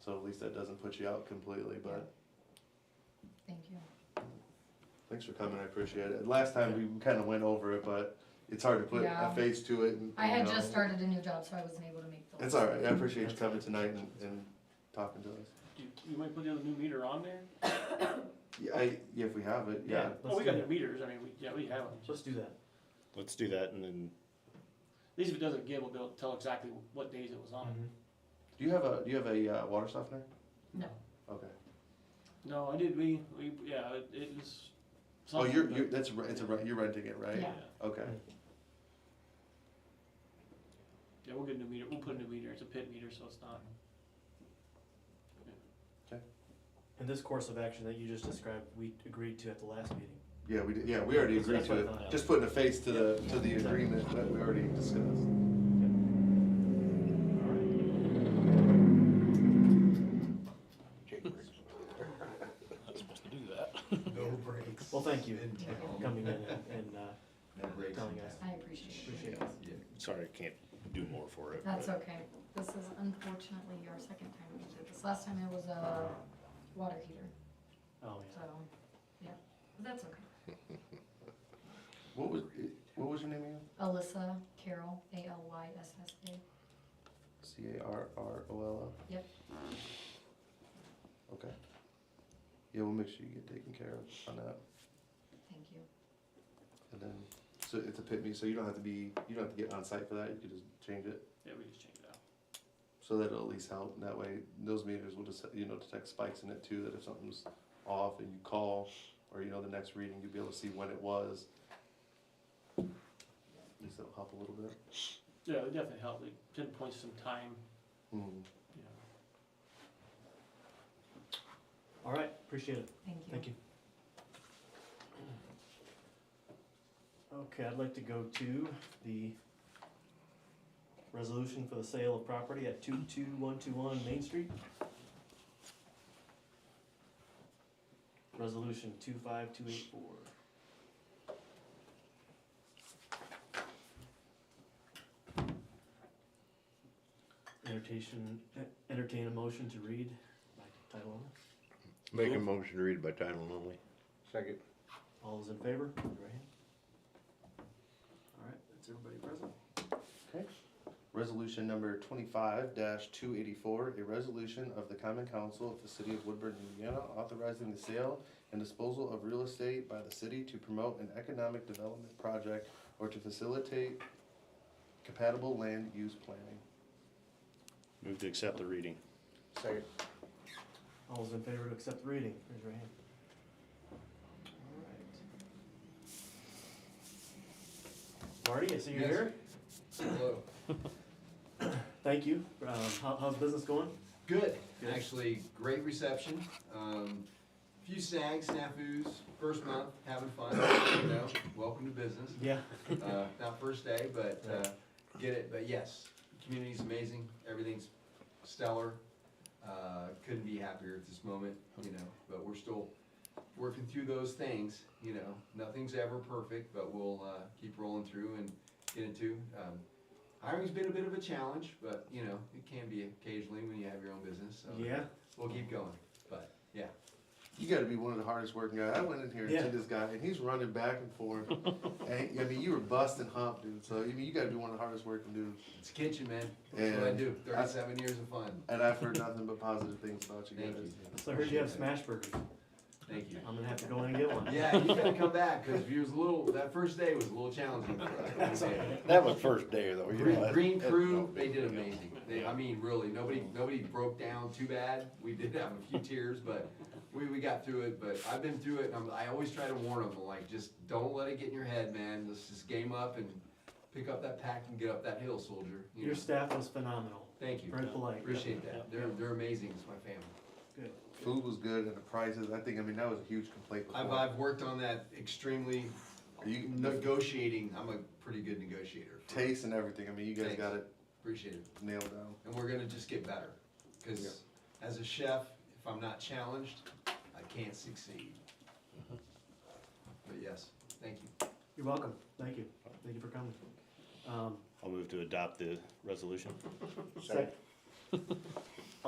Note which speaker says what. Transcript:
Speaker 1: So at least that doesn't put you out completely, but
Speaker 2: Thank you.
Speaker 1: thanks for coming, I appreciate it. Last time we kinda went over it, but it's hard to put a
Speaker 2: Yeah.
Speaker 1: face to it and.
Speaker 2: I had
Speaker 1: you know.
Speaker 2: just started a new job, so I wasn't able to make the.
Speaker 1: It's
Speaker 2: list.
Speaker 1: alright, I appreciate you coming tonight and, and talking to us.
Speaker 3: You, you might put the new meter on there?
Speaker 1: Yeah, I, yeah, if we have it, yeah.
Speaker 3: Oh,
Speaker 4: Let's
Speaker 3: we
Speaker 4: do
Speaker 3: got new
Speaker 4: that.
Speaker 3: meters, I mean, we, yeah, we have them. At
Speaker 4: Let's do that.
Speaker 5: Let's do that and then.
Speaker 3: least if it doesn't give, we'll be able to tell exactly what days it was on.
Speaker 1: Do you have a, do you have a, uh, water softener?
Speaker 2: No.
Speaker 1: Okay.
Speaker 4: Mm-hmm.
Speaker 3: No, I did, we, we, yeah, it- it was.
Speaker 1: Oh,
Speaker 3: something,
Speaker 1: you're,
Speaker 3: but-
Speaker 1: you're, that's, re- it's a, re- you're renting it, right?
Speaker 3: Yeah,
Speaker 2: Yeah.
Speaker 1: Okay,
Speaker 3: yeah, we'll get a new meter, we'll put a new meter, it's a pit meter, so it's not,
Speaker 4: And this course of action that you just described, we agreed to at the last meeting.
Speaker 1: yeah, we did, yeah, we already
Speaker 4: That's-
Speaker 1: agreed
Speaker 4: that's what
Speaker 1: to
Speaker 4: I
Speaker 1: it,
Speaker 4: thought.
Speaker 1: just putting a face to the,
Speaker 4: Yeah.
Speaker 1: to the
Speaker 4: Yeah.
Speaker 1: agreement that we already discussed.
Speaker 5: Not supposed to do that.
Speaker 6: No breaks.
Speaker 4: Well, thank you
Speaker 6: in
Speaker 4: for
Speaker 6: town.
Speaker 4: coming in and, and, uh,
Speaker 6: No breaks in
Speaker 4: telling us.
Speaker 6: town.
Speaker 2: I appreciate it.
Speaker 4: appreciate it.
Speaker 5: Sorry, I can't do more for it.
Speaker 2: That's
Speaker 5: but-
Speaker 2: okay. This is unfortunately our second time we did this. Last time it was a water heater,
Speaker 4: Oh,
Speaker 2: so,
Speaker 4: yeah.
Speaker 2: yeah, but that's okay.
Speaker 1: What was, what was your name again?
Speaker 2: Alyssa Carroll, A L Y S S A.
Speaker 1: C A R R O L L?
Speaker 2: Yep.
Speaker 1: Okay. Yeah, we'll make sure you get taken care of on that,
Speaker 2: Thank you.
Speaker 1: and then, so it's a pit meet, so you don't have to be, you don't have to get on site for that, you can just change it.
Speaker 3: yeah, we just changed it out.
Speaker 1: So that'll at least help, and that way, those meters will just, you know, detect spikes in it too, that if something's off and you call, or you know, the next reading, you'll be able to see when it was. At least it'll help a little bit.
Speaker 3: Yeah, it definitely helped, it pinpoints some time,
Speaker 1: Hmm.
Speaker 3: you know.
Speaker 4: All right, appreciate it.
Speaker 2: Thank you.
Speaker 4: Thank you. Okay, I'd like to go to the resolution for the sale of property at two-two-one-two-one Main Street. Resolution two-five-two-eight-four. Entertain, entertain a motion to read by title only.
Speaker 7: Make a motion to read by title only.
Speaker 6: Second.
Speaker 4: All those in favor, raise your hand. All right, that's everybody present.
Speaker 1: Resolution number twenty-five two eighty-four, a resolution of the Common Council of the City of Woodburn, Indiana, authorizing the sale and disposal of real estate by the city to promote an economic development project or to facilitate compatible land use planning.
Speaker 5: Move to accept the reading.
Speaker 6: Second.
Speaker 4: All those in favor to accept the reading, raise your hand. All right. Marty, I see you're
Speaker 6: Yes.
Speaker 4: here.
Speaker 6: Hello.
Speaker 4: Thank you. Um, how, how's business going?
Speaker 6: Good.
Speaker 4: Good.
Speaker 6: Actually, great reception. Um, few snags, snafus, first month, having fun, you know, welcome to business.
Speaker 4: Yeah.
Speaker 6: Uh, not first day, but, uh, get it, but yes, community's amazing, everything's stellar. Uh, couldn't be happier at this moment, you know, but we're still working through those things, you know. Nothing's ever perfect, but we'll, uh, keep rolling through and get into. Um, hiring's been a bit of a challenge, but, you know, it can be occasionally when you have your own business, so.
Speaker 4: Yeah.
Speaker 6: We'll keep going, but, yeah.
Speaker 1: You gotta be one of the hardest working guys. I went in here and
Speaker 4: Yeah.
Speaker 1: did this guy, and he's running back and forth. And, I mean, you were busting hump, dude, so, I mean, you gotta be one of the hardest working dudes.
Speaker 6: It's kitchen, man. That's what I
Speaker 1: And
Speaker 6: do.
Speaker 1: I-
Speaker 6: Thirty-seven years of fun.
Speaker 1: And I've heard nothing but positive things about you
Speaker 6: Thank
Speaker 1: guys.
Speaker 6: you.
Speaker 4: So I heard you have smash burgers.
Speaker 6: Thank you.
Speaker 4: I'm gonna have to go in and get one.
Speaker 6: Yeah, you gotta come back, cause you was a little, that first day was a little challenging.
Speaker 5: That was first day though. you know,
Speaker 6: Green,
Speaker 5: that-
Speaker 6: Green
Speaker 5: that-
Speaker 6: Crew,
Speaker 5: no,
Speaker 6: they did
Speaker 5: yeah.
Speaker 6: amazing. They, I mean, really, nobody, nobody broke down too bad. We did have a few tears, but we, we got through it, but I've been through it, and I'm, I always try to warn them, like, just don't let it get in your head, man. Let's just game up and pick up that pack and get up that hill, soldier. You
Speaker 4: Your
Speaker 6: know?
Speaker 4: staff was phenomenal.
Speaker 6: Thank you.
Speaker 4: Very polite.
Speaker 6: Appreciate that. They're, they're amazing. It's my family.
Speaker 4: Good.
Speaker 1: Food was good, and the prices, I think, I mean, that was a huge complaint before.
Speaker 6: I've, I've worked on that extremely,
Speaker 1: Are you-
Speaker 6: negotiating, I'm a pretty good negotiator.
Speaker 1: taste and everything. I mean, you guys
Speaker 6: Thanks.
Speaker 1: got it
Speaker 6: Appreciate it.
Speaker 1: nailed down.
Speaker 6: And we're gonna just get better, cause as a chef, if I'm not challenged, I can't succeed. But yes, thank you.
Speaker 4: You're welcome. Thank you. Thank you for coming. Um,
Speaker 5: I'll move to adopt the resolution.
Speaker 4: sec-